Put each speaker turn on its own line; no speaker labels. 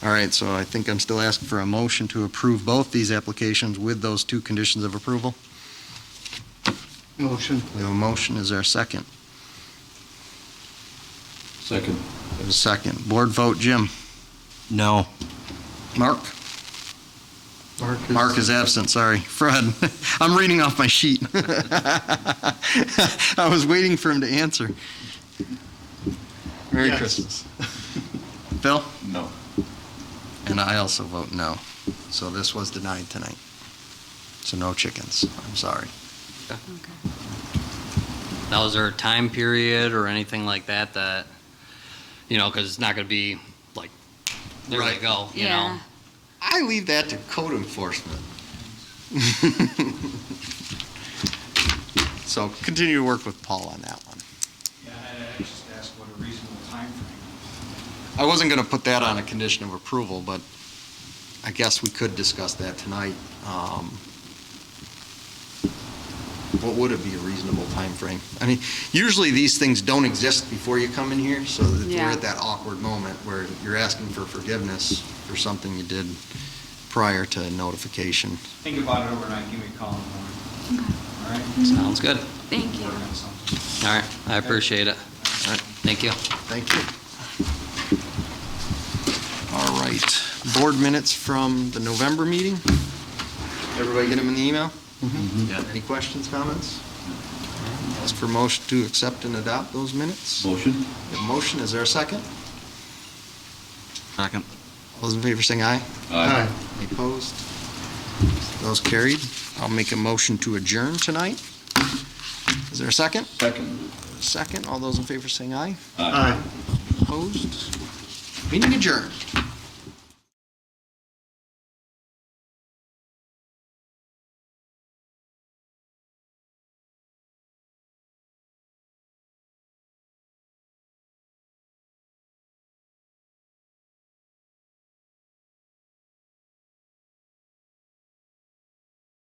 All right, so I think I'm still asking for a motion to approve both these applications with those two conditions of approval.
Motion.
We have a motion, is there a second?
Second.
There's a second. Board vote, Jim?
No.
Mark?
Mark is-
Mark is absent, sorry. Fred, I'm reading off my sheet. I was waiting for him to answer. Merry
Yes.
Christmas. Phil?
No.
And I also vote no. So this was denied tonight. So no chickens, I'm sorry.
Now, is there a time period or anything like that that, you know, because it's not going to be like, there they
Right.
go, you know?
Yeah.
I leave that to code enforcement. So continue to work with Paul on that one.
Yeah, and I just asked what a reasonable timeframe.
I wasn't going to put that on a condition of approval, but I guess we could discuss that tonight. Um, What would it be a reasonable time frame? I mean, usually these things don't exist before you come in here, so that we're
Yeah.
at that awkward moment where you're asking for forgiveness for something you did prior to notification.
Think about it overnight, give me a call in the morning. All right?
Sounds good.
Thank you.
Work on something.
All right, I appreciate it. All right, thank you.
Thank you. All right, board minutes from the November meeting? Everybody get them in the email?
Yeah.
Any questions, comments? Ask for motion to accept and adopt those minutes.
Motion?
We have a Motion, is there a second?
Second.
All those in favor saying aye.
Aye.
Any opposed? Those carried. I'll make a motion to adjourn tonight. Is there a second?
Second.
Second, all those in favor saying aye.
Aye.
Opposed? Meeting adjourned.